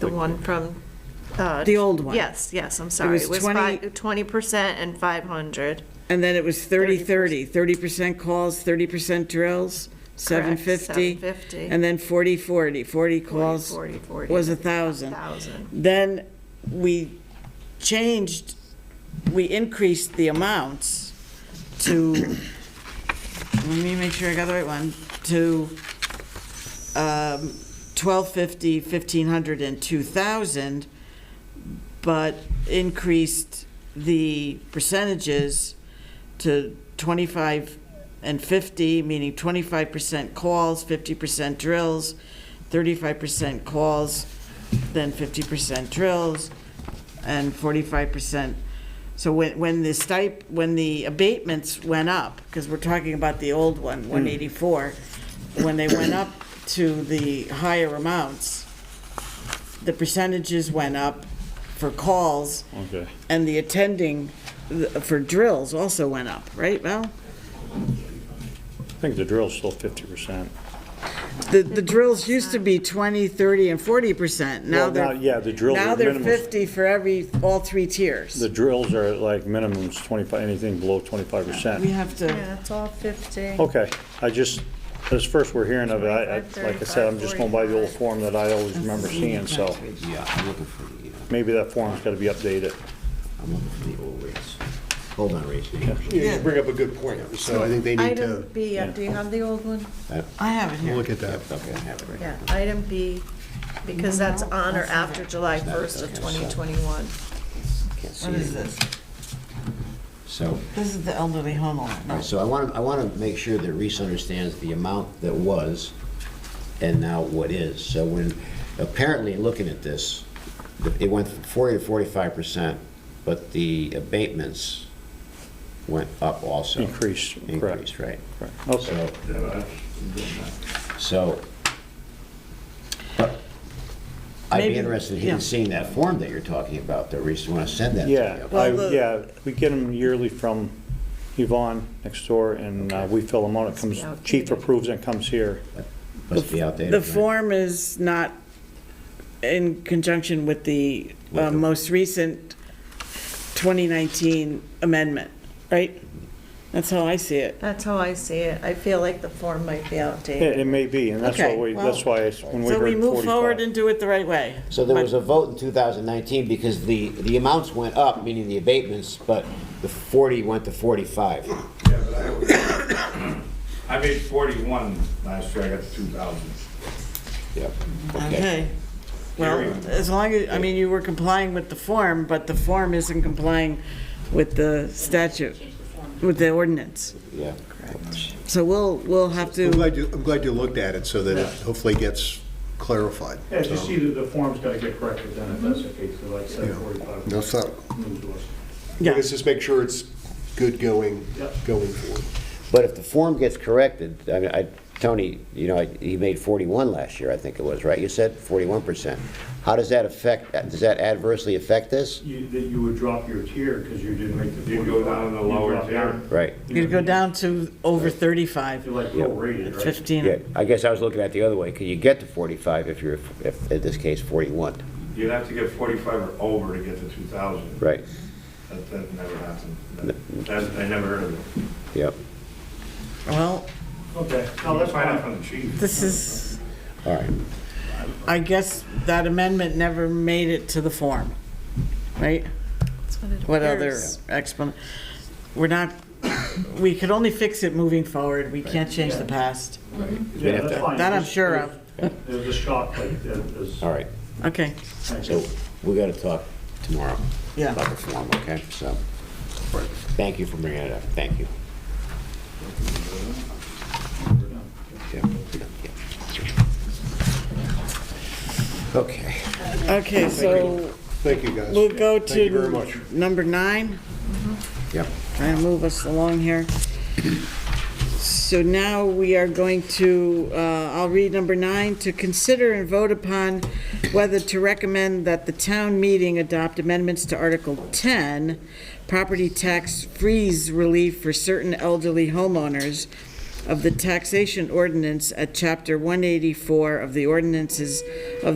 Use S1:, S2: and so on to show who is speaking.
S1: The one from. uh,
S2: The old one.
S1: Yes, yes, I'm sorry.
S2: was
S1: It was
S2: 20
S1: twenty percent and five hundred.
S2: And then it was 30-30, 30% calls, 30% drills, 750.
S1: 750.
S2: And then 40-40, 40 calls
S1: 40, 40.
S2: was a 1,000.
S1: 1,000.
S2: Then we changed, we increased the amounts to, let me make sure I got the right one, to um, 1,250, 1,500, and 2,000, but increased the percentages to 25 and 50, meaning 25% calls, 50% drills, 35% calls, then 50% drills, and 45%. So when, when the stip, when the abatements went up, because we're talking about the old one, 184, when they went up to the higher amounts, the percentages went up for calls.
S3: Okay.
S2: And the attending th- for drills also went up, right, Val?
S3: I think the drill's still 50%.
S2: The, the drills used to be 20, 30, and 40%. Now
S3: Well, now,
S2: they're,
S3: yeah, the drills
S2: now
S3: are
S2: they're
S3: minimum.
S2: 50 for every, all three tiers.
S3: The drills are like minimums 25, anything below 25%.
S2: We have to,
S1: Yeah, it's all fifty.
S3: Okay, I just, this first we're hearing of it, I, I- like I said, I'm just going by the old form that I always remember seeing, so
S4: Yeah, I'm looking for the, uh,
S3: maybe that form's gotta be updated.
S4: I'm looking for the old rates. Hold on, Rachel. I
S5: Yeah, you bring up a good point, so I think they need to
S1: Item B, uh, do you have the old one?
S2: I have it here.
S5: look at that.
S4: don't have it right
S1: Yeah, item B, because that's on or after July first of twenty twenty-one.
S4: I can't see
S2: What is
S4: it.
S2: this?
S4: So,
S2: This is the elderly home loan.
S4: all right, so I want to, I want to make sure that Reese understands the amount that was and now what is. So when, apparently, looking at this, it went from 40 to 45 percent, but the abatements went up also.
S3: Increased, correct.
S4: Increased, right.
S3: Correct. Okay,
S4: So, so, but I'd
S2: Maybe-
S4: be interested
S2: yeah.
S4: in seeing that form that you're talking about, that Reese, want to send that to me.
S3: yeah, I,
S2: Well, the-
S3: yeah, we get them yearly from Yvonne next door and uh, we fill them out, it comes, chief approves and comes here.
S4: Must be
S3: Oh.
S4: outdated.
S2: The
S4: right?
S2: form is not in conjunction with the uh, most recent 2019 amendment, right? That's how I see it.
S1: That's how I see it. I feel like the form might be outdated.
S3: It, it may be, and that's why,
S2: Okay,
S3: we-
S2: well,
S3: that's why it's- when we
S2: So we
S3: heard
S2: move forward
S3: 45.
S2: and do it the right way.
S4: So there was a vote in 2019 because the, the amounts went up, meaning the abatements, but the 40 went to 45.
S6: I made forty-one last year, I got two thousand.
S4: Yep.
S2: Okay. Well,
S6: Carry on.
S2: as long as, I mean, you were complying with the form, but the form isn't complying with the statute, with the ordinance.
S4: Yeah.
S2: So we'll, we'll have
S5: I'm
S2: to,
S5: glad you, I'm glad you looked at it so that it hopefully gets clarified.
S7: Yeah, just see that the form's gotta get corrected then, if that's the case, so like
S5: Yeah.
S7: seven forty-five.
S5: No, so,
S7: Move to us.
S2: yeah,
S5: let's just make sure it's good going,
S7: Yep.
S5: going forward.
S4: But if the form gets corrected, I mean, I, Tony, you know, I- he made 41 last year, I think it was, right? You said 41%. How does that affect, does that adversely affect this?
S7: You, that you would drop your tier, because you didn't make the.
S6: You go down to the
S7: 45. You
S6: lower
S7: drop
S6: tier.
S7: down.
S4: Right.
S2: you go down to over
S7: You're
S2: 35,
S7: like prorated, right?
S2: 15.
S4: Yeah, I guess I was looking at it the other way. Can you get to 45 if you're, if, in this case, 41?
S6: You'd have to get forty-five or over to get to two thousand.
S4: Right,
S6: That, that never happened. That, that- I never heard of it.
S4: yep.
S2: Well,
S7: Okay, no, that's
S6: Find out
S7: fine.
S6: from the chief.
S2: this is,
S4: All right.
S2: I guess that amendment never made it to the form, right?
S1: That's it
S2: What other
S1: appears.
S2: explanation? We're not, we could only fix it moving forward. We can't change the past.
S7: Yeah,
S4: have
S7: that's
S4: to-
S7: fine.
S2: That I'm
S7: Just-
S2: sure of.
S7: There's a shock, like, that is.
S4: All right,
S2: Okay,
S7: Thank you.
S4: so we gotta talk tomorrow
S2: yeah.
S4: about the form, okay? So, thank you for bringing it up, thank you. Yep, yep, yep. Okay.
S2: Okay, so
S5: Thank you, guys.
S2: we'll go to.
S5: Thank you very much.
S2: Number nine,
S4: Yep.
S2: trying to move us along here. So now we are going to, uh, I'll read number nine, to consider and vote upon whether to recommend that the town meeting adopt amendments to Article 10, property tax freeze relief for certain elderly homeowners of the taxation ordinance at Chapter 184 of the ordinances of